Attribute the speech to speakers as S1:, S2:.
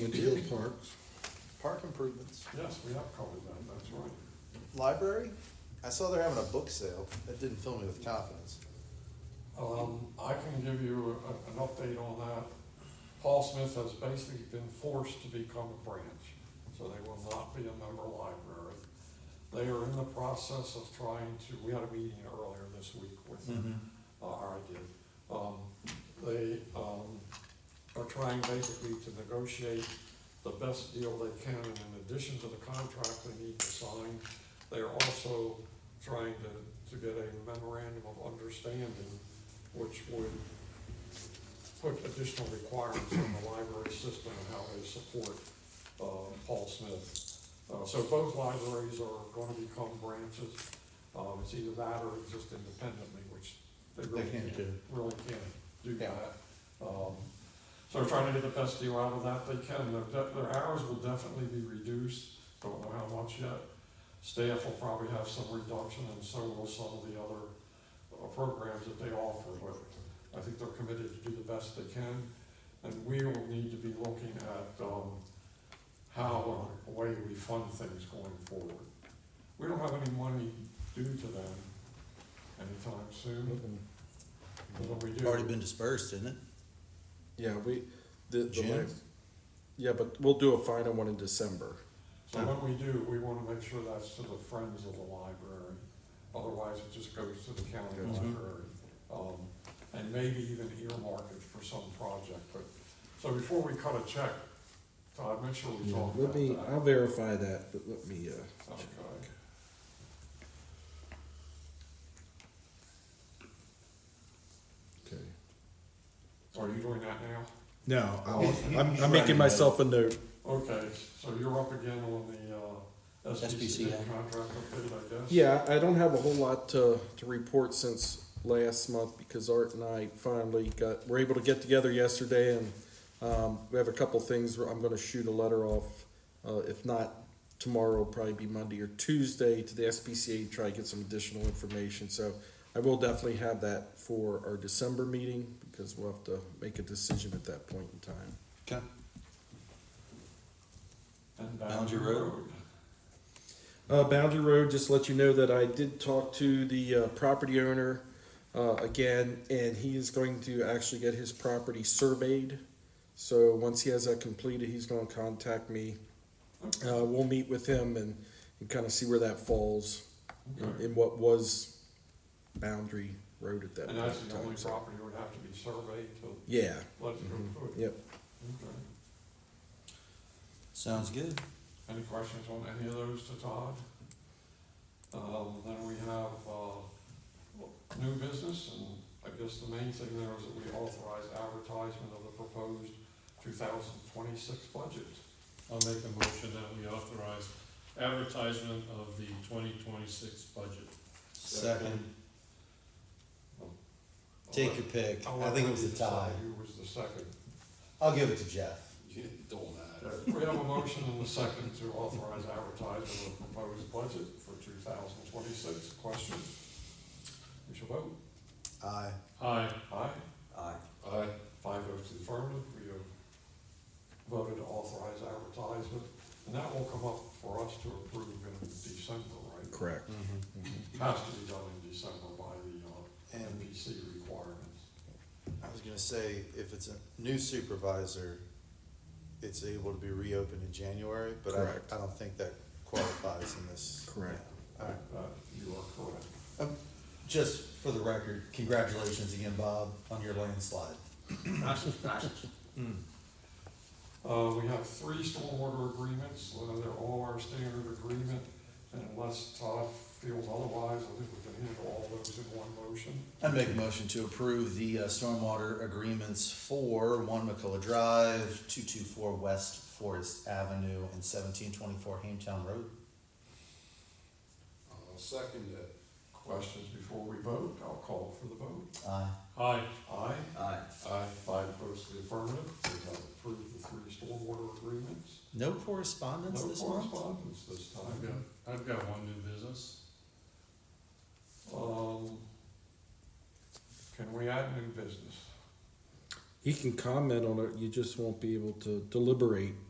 S1: We deal parks,
S2: Park improvements.
S3: Yes, we have covered that, that's right.
S2: Library? I saw they're having a book sale. That didn't fill me with confidence.
S3: Um, I can give you a- an update on that. Paul Smith has basically been forced to become a branch, so they will not be a member library. They are in the process of trying to, we had a meeting earlier this week with them, uh, or I did. Um, They um, are trying basically to negotiate the best deal they can, and in addition to the contract they need to sign, they are also trying to, to get a memorandum of understanding, which would put additional requirements on the library system and how they support, uh, Paul Smith. Uh, so both libraries are gonna become branches, um, it's either that or just independently, which they really
S1: can't
S3: can't,
S1: do.
S3: really can't do
S2: Yeah.
S3: that. Um, so we're trying to get the best deal out of that they can, their, de- their hours will definitely be reduced, don't know how much yet. Staff will probably have some reduction and so will some of the other uh, programs that they offer, but I think they're committed to do the best they can. And we will need to be looking at, um, how, and the way we fund things going forward. We don't have any money due to them anytime soon, but when we do.
S4: Already been dispersed, isn't it?
S1: yeah, we, the, the
S4: June?
S1: last- yeah, but we'll do a final one in December.
S3: So when we do, we wanna make sure that's to the friends of the library, otherwise it just goes to the county
S1: Goes.
S4: Mhm.
S3: library. Um, and maybe even earmark it for some project, but, so before we cut a check, Todd, make sure we talk about
S1: Let me, I'll
S3: that.
S1: verify that, but let me, uh,
S3: Okay.
S1: okay.
S3: Are you doing that now?
S4: No,
S1: I'll- I'm, I'm making myself a note.
S3: Okay, so you're up again on the, uh, SPCA
S4: SPCA.
S3: contract update, I guess?
S1: Yeah, I don't have a whole lot to, to report since last month because Art and I finally got, were able to get together yesterday and, um, we have a couple things where I'm gonna shoot a letter off, uh, if not tomorrow, it'll probably be Monday or Tuesday to the SPCA, to try to get some additional information, so I will definitely have that for our December meeting because we'll have to make a decision at that point in time.
S4: Okay.
S3: And
S4: Boundary Road.
S1: Uh, Boundary Road, just let you know that I did talk to the uh, property owner uh, again, and he is going to actually get his property surveyed. So once he has that completed, he's going to contact me. Uh, we'll meet with him and, and kind of see where that falls in,
S3: Okay.
S1: in what was Boundary Road at that
S3: And
S1: point
S3: that's
S1: in
S3: the only
S1: time. so-
S3: property that would have to be surveyed to
S1: yeah,
S3: let it go
S1: Mhm.
S3: through.
S1: yep.
S3: Okay.
S4: Sounds good.
S3: Any questions on any of those to Todd? Um, then we have, uh, new business, and I guess the main thing there is that we authorize advertisement of the proposed two thousand twenty-six budget.
S5: I'll make a motion that we authorize advertisement of the twenty twenty-six budget.
S4: Second,
S3: I'll
S4: take
S3: let-
S4: your pick.
S3: I'll
S4: I
S3: let
S4: think it
S3: you
S4: was a tie.
S3: decide Who was the second?
S4: I'll give it to Jeff.
S3: We have a motion and a second to authorize advertisement of the proposed budget for two thousand twenty-six. Question? We shall vote.
S4: Aye.
S5: Aye,
S3: Aye.
S4: Aye.
S3: Aye. Five votes in affirmative, we have voted to authorize advertisement, and that will come up for us to approve in December, right?
S1: Correct.
S3: Has to be done in December by the uh,
S2: And-
S3: NBC requirements.
S2: I was gonna say, if it's a new supervisor, it's able to be reopened in January, but
S1: Correct.
S2: I, I don't think that qualifies in this.
S1: Correct.
S2: Yeah. All right.
S3: Uh, You are correct.
S4: Just for the record, congratulations again, Bob, on your landslide.
S3: Uh, we have three stormwater agreements, uh, they're all our standard agreement, and unless Todd feels otherwise, I think we can handle all those in one motion.
S4: I'd make a motion to approve the uh, stormwater agreements for one McCullough Drive, two-two-four West Forest Avenue, and seventeen twenty-four Hametown Road.
S3: I'll second it. Questions before we vote, I'll call for the vote.
S4: Aye.
S5: aye,
S3: Aye.
S4: Aye.
S3: Aye. Five votes to the affirmative, we have approved the three stormwater agreements.
S4: No correspondence
S3: No
S4: this month?
S3: correspondence this
S5: I've got,
S3: time.
S5: I've got one new business.
S3: Um, can we add new business?
S1: He can comment on it, you just won't be able to deliberate